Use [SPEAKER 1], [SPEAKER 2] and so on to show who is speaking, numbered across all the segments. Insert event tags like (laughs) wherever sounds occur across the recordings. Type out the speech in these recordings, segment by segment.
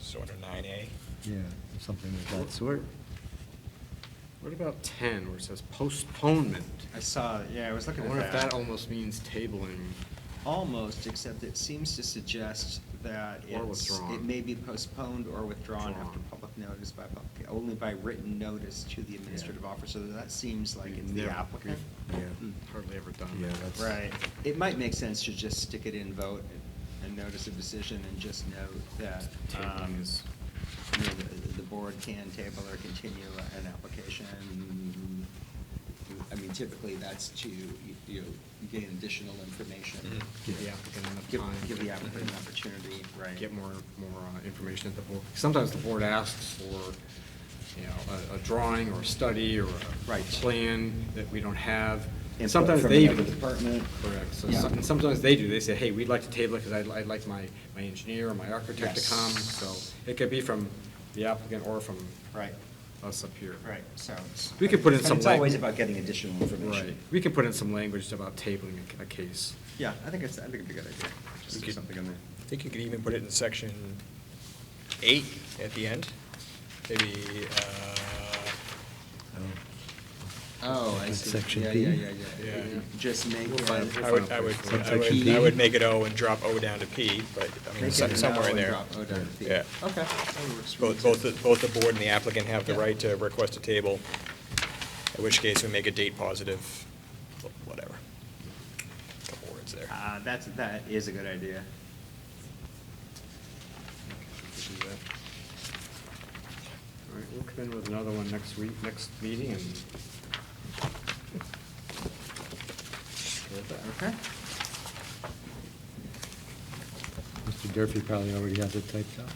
[SPEAKER 1] so under nine A.
[SPEAKER 2] Yeah, something of that sort.
[SPEAKER 3] What about ten, where it says postponement?
[SPEAKER 4] I saw, yeah, I was
[SPEAKER 3] I
[SPEAKER 4] looking at
[SPEAKER 3] wonder if that
[SPEAKER 4] that.
[SPEAKER 3] almost means tabling.
[SPEAKER 4] Almost, except it seems to suggest that
[SPEAKER 3] Or
[SPEAKER 4] it's, it
[SPEAKER 3] withdrawn.
[SPEAKER 4] may be postponed or withdrawn after
[SPEAKER 3] Withdrawn.
[SPEAKER 4] public notice by, pub- only by written notice to the administrative officer. That seems like it's the
[SPEAKER 3] Never-
[SPEAKER 4] applicant.
[SPEAKER 2] Yeah.
[SPEAKER 3] Hmm, Hardly ever done.
[SPEAKER 2] Yeah, that's-
[SPEAKER 4] Right. It might make sense to just stick it in vote and- and notice of decision and just note that, um,
[SPEAKER 3] Tabling is-
[SPEAKER 4] you know, the, the board can table or continue an application. I mean, typically that's to, you you know, gain additional information.
[SPEAKER 1] Mhm.
[SPEAKER 3] Give the applicant enough
[SPEAKER 4] Give,
[SPEAKER 3] time.
[SPEAKER 4] give the applicant
[SPEAKER 3] (laughs)
[SPEAKER 4] an opportunity, right?
[SPEAKER 3] Get more, more uh, information at the board. Sometimes the board asks for, you know, a, a drawing or a study or a.
[SPEAKER 4] Right.
[SPEAKER 3] Plan that we don't have.
[SPEAKER 4] Input
[SPEAKER 3] Sometimes
[SPEAKER 4] from
[SPEAKER 3] they
[SPEAKER 4] another
[SPEAKER 3] even.
[SPEAKER 4] department.
[SPEAKER 3] Correct. So,
[SPEAKER 4] Yeah.
[SPEAKER 3] some- and sometimes they do. They say, hey, we'd like to table it because I'd, I'd like my, my engineer or my architect
[SPEAKER 4] Yes.
[SPEAKER 3] to come. So it could be from the applicant or from.
[SPEAKER 4] Right.
[SPEAKER 3] Us up here.
[SPEAKER 4] Right, so. it's-
[SPEAKER 3] We could put in
[SPEAKER 4] but
[SPEAKER 3] some
[SPEAKER 4] It's always
[SPEAKER 3] lang-
[SPEAKER 4] about getting additional
[SPEAKER 3] Right.
[SPEAKER 4] information.
[SPEAKER 3] We can put in some language about tabling a- a case.
[SPEAKER 4] Yeah, I think it's, I think it'd be a good idea,
[SPEAKER 1] We
[SPEAKER 4] just do
[SPEAKER 1] could-
[SPEAKER 4] something in there.
[SPEAKER 1] I think you could even put it in section eight at the end, maybe, uh,
[SPEAKER 4] Oh, I
[SPEAKER 2] Like
[SPEAKER 4] see.
[SPEAKER 2] section
[SPEAKER 4] Yeah,
[SPEAKER 2] B?
[SPEAKER 4] yeah, yeah, yeah.
[SPEAKER 1] Yeah.
[SPEAKER 4] Just make.
[SPEAKER 3] We'll find-
[SPEAKER 4] uh,
[SPEAKER 1] I would, I would, I would, I would make it O and drop O down to P, but, I mean,
[SPEAKER 4] Make
[SPEAKER 1] some-
[SPEAKER 4] it
[SPEAKER 1] somewhere
[SPEAKER 4] now
[SPEAKER 1] in
[SPEAKER 4] and
[SPEAKER 1] there.
[SPEAKER 4] drop O down to P.
[SPEAKER 1] Yeah.
[SPEAKER 4] Okay. that works for me
[SPEAKER 1] Both, both,
[SPEAKER 4] too.
[SPEAKER 1] the- both the board and the applicant have the
[SPEAKER 4] Yeah.
[SPEAKER 1] right to request a table, in which case we make a date positive, whatever. Couple words there.
[SPEAKER 4] Uh, that's, that is a good idea.
[SPEAKER 3] All right, we'll come in with another one next week, next meeting, and
[SPEAKER 4] Okay.
[SPEAKER 2] Mr. Durfee probably already has it typed
[SPEAKER 4] (laughs)
[SPEAKER 2] up.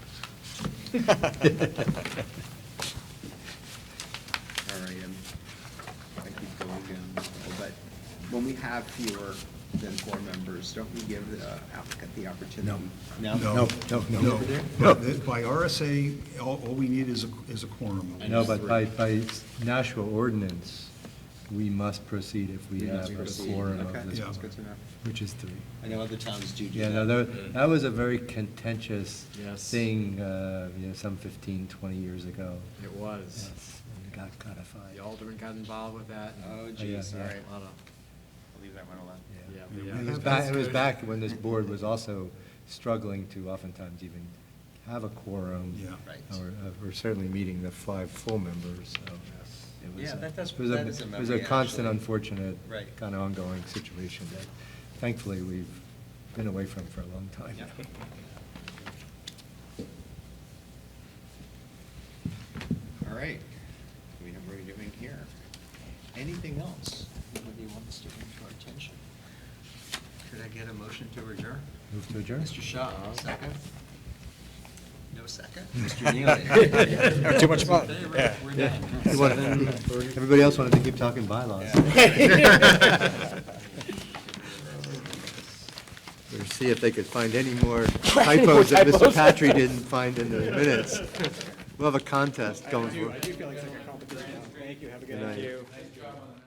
[SPEAKER 4] All right, um, I keep going down, but when we have fewer than four members, don't we give the applicant the opportunity?
[SPEAKER 2] No, no, no.
[SPEAKER 5] No,
[SPEAKER 2] No.
[SPEAKER 5] no. By RSA, all, all we need is a, is a quorum.
[SPEAKER 2] No, but by, by Nashua ordinance, we must proceed if we have
[SPEAKER 4] We
[SPEAKER 2] a
[SPEAKER 4] proceed.
[SPEAKER 2] quorum
[SPEAKER 4] Okay,
[SPEAKER 2] of this,
[SPEAKER 5] Yeah.
[SPEAKER 4] That's good to know.
[SPEAKER 2] which is three.
[SPEAKER 4] I know other towns do do
[SPEAKER 2] Yeah,
[SPEAKER 4] that.
[SPEAKER 2] no,
[SPEAKER 4] Mm.
[SPEAKER 2] that, that was a very contentious
[SPEAKER 3] Yes.
[SPEAKER 2] thing, uh, you know, some 15, 20 years ago.
[SPEAKER 3] it was.
[SPEAKER 2] Yes, and Got codified.
[SPEAKER 3] The alderman got involved with that. and-
[SPEAKER 4] Oh,
[SPEAKER 2] yeah,
[SPEAKER 4] geez, all
[SPEAKER 2] yeah.
[SPEAKER 4] right.
[SPEAKER 3] A lot of-
[SPEAKER 4] I'll leave that one alone.
[SPEAKER 3] yeah,
[SPEAKER 2] Yeah.
[SPEAKER 3] but
[SPEAKER 5] Yeah,
[SPEAKER 3] yeah.
[SPEAKER 2] It was
[SPEAKER 5] That's
[SPEAKER 2] back, it was
[SPEAKER 5] good.
[SPEAKER 2] back when this board was also struggling to oftentimes even have a quorum.
[SPEAKER 5] Yeah.
[SPEAKER 4] Right.
[SPEAKER 2] Or, or certainly meeting the five full members, so.
[SPEAKER 3] Yes.
[SPEAKER 2] it was
[SPEAKER 4] Yeah,
[SPEAKER 2] a-
[SPEAKER 4] that does-
[SPEAKER 2] it was a-
[SPEAKER 4] that is a
[SPEAKER 2] It was a
[SPEAKER 4] memory,
[SPEAKER 2] constant
[SPEAKER 4] actually.
[SPEAKER 2] unfortunate.
[SPEAKER 4] Right.
[SPEAKER 2] Kind of ongoing situation that thankfully we've been away from for a long time.
[SPEAKER 4] Yeah.
[SPEAKER 2] now.
[SPEAKER 4] All right, we know what we're doing here. Anything else anybody wants to bring to our attention? Could I get a motion to adjourn?
[SPEAKER 2] Move to adjourn?
[SPEAKER 4] Mr. Shaw, second? No second? Mr. (laughs) Neely?
[SPEAKER 1] Too much
[SPEAKER 4] Those
[SPEAKER 1] fun,
[SPEAKER 4] in favor?
[SPEAKER 1] yeah.
[SPEAKER 4] We're
[SPEAKER 2] Yeah.
[SPEAKER 4] done.
[SPEAKER 2] You
[SPEAKER 4] (laughs)
[SPEAKER 2] wanted- Everybody else wanted to keep talking bylaws. Or see if they could find (laughs) any more typos that Mr. Patry didn't find in the minutes. We'll have a contest going. for-
[SPEAKER 1] do feel like it's like a competition. Thank you, have a good
[SPEAKER 2] Good night.
[SPEAKER 1] night.